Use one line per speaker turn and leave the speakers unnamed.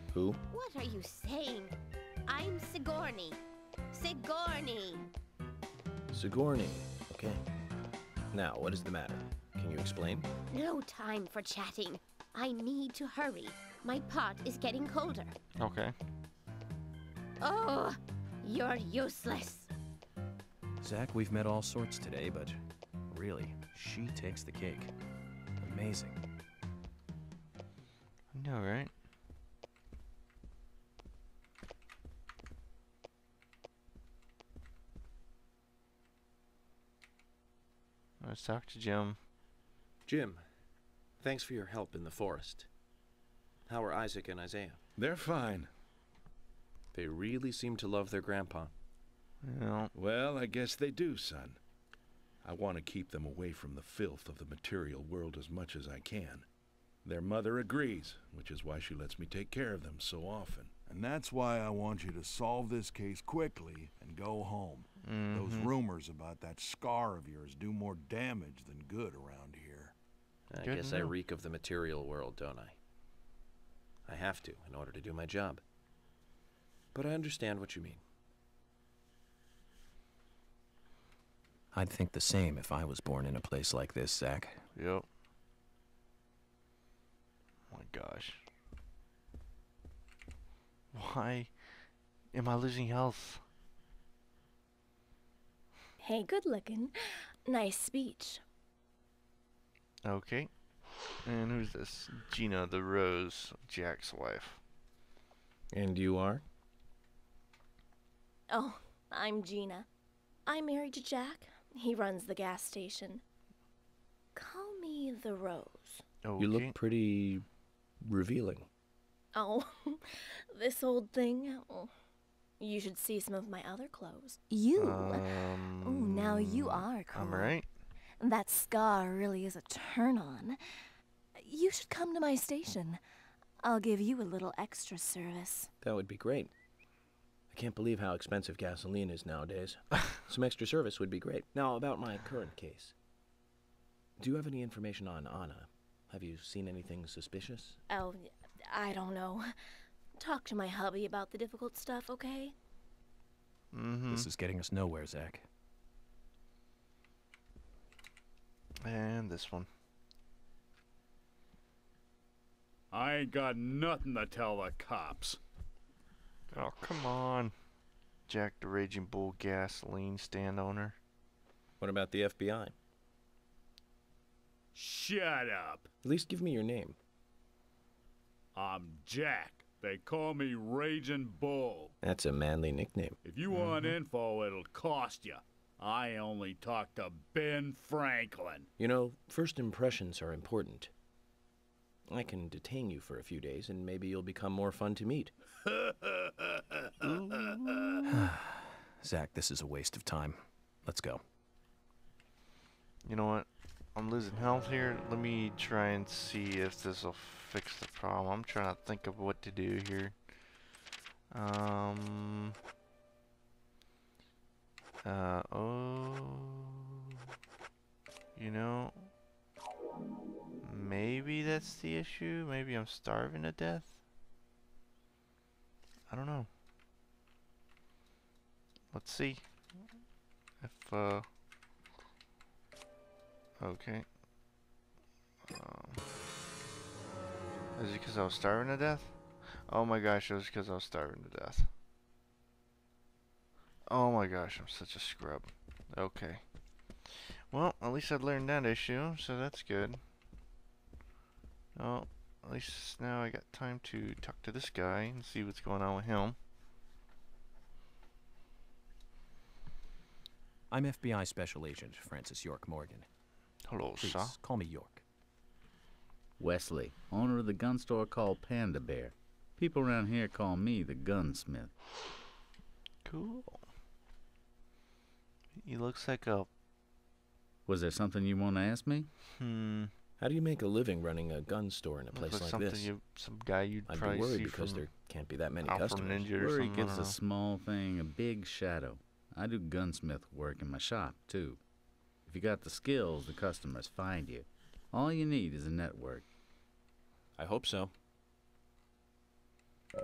Who?
What are you saying? I'm Sigourney. Sigourney.
Sigourney. Okay. Now, what is the matter? Can you explain?
No time for chatting. I need to hurry. My pot is getting colder.
Okay.
Oh, you're useless.
Zach, we've met all sorts today, but really, she takes the cake. Amazing.
No, right? Let's talk to Jim.
Jim, thanks for your help in the forest. How are Isaac and Isaiah?
They're fine.
They really seem to love their grandpa.
Well,
Well, I guess they do, son. I want to keep them away from the filth of the material world as much as I can. Their mother agrees, which is why she lets me take care of them so often.
And that's why I want you to solve this case quickly and go home. Those
Mm-hmm.
Mm-hmm.
rumors about that scar of yours do more damage than good around here.
I
Good
guess
to
I
know.
reek of the material world, don't I? I have to in order to do my job. But I understand what you mean.
I'd think the same if I was born in a place like this, Zach.
Yep. Oh my gosh. Why am I losing health?
Hey, good looking. Nice speech.
Okay. And who's this? Gina the Rose, Jack's wife.
And you are?
Oh, I'm Gina. I'm married to Jack. He runs the gas station. Call me the Rose.
Okay.
You look pretty revealing.
Oh, this old thing. Oh, You should see some of my other clothes.
You.
Um,
oh, now you are cool.
Mm, I'm right.
That scar really is a turn on. You should come to my station. I'll give you a little extra service.
That would be great. I can't believe how expensive gasoline is nowadays. Some extra service would be great. Now, about my current case. Do you have any information on Anna? Have you seen anything suspicious?
Oh, I don't know. Talk to my hubby about the difficult stuff, okay?
Mm-hmm.
This is getting us nowhere, Zach.
And this one.
I ain't got nothing to tell the cops.
Oh, come on. Jack the Raging Bull gasoline stand owner.
What about the FBI?
Shut up.
At least give me your name.
I'm Jack. They call me Raging Bull.
That's a manly nickname.
If you want
Mm-hmm.
info, it'll cost you. I only talked to Ben Franklin.
You know, first impressions are important. I can detain you for a few days, and maybe you'll become more fun to meet.
Zach, this is a waste of time. Let's go.
You know what? I'm losing health here. Let me try and see if this will fix the problem. I'm trying to think of what to do here. Um. Uh oh. You know. Maybe that's the issue. Maybe I'm starving to death. I don't know. Let's see. If uh. Okay. Um, is it because I was starving to death? Oh my gosh, it was because I was starving to death. Oh my gosh, I'm such a scrub. Okay. Well, at least I learned that issue, so that's good. Oh, at least now I got time to talk to this guy and see what's going on with him.
I'm FBI Special Agent Francis York Morgan.
Hello,
Please,
sir.
call me York.
Wesley, owner of the gun store called Panda Bear. People around here call me the gunsmith.
Cool. He looks like a
Was there something you want to ask me?
hmm.
How do you make a living running a gun store in a
looks
place like
something
this?
you, some guy you'd
I'd
probably
be worried
see
because
from
there can't be that many
Alpha
customers.
Ninja or
Worry
something, I
gives
don't
a
know.
small thing a big shadow. I do gunsmith work in my shop, too. If you got the skills, the customers find you. All you need is a network.
I hope so.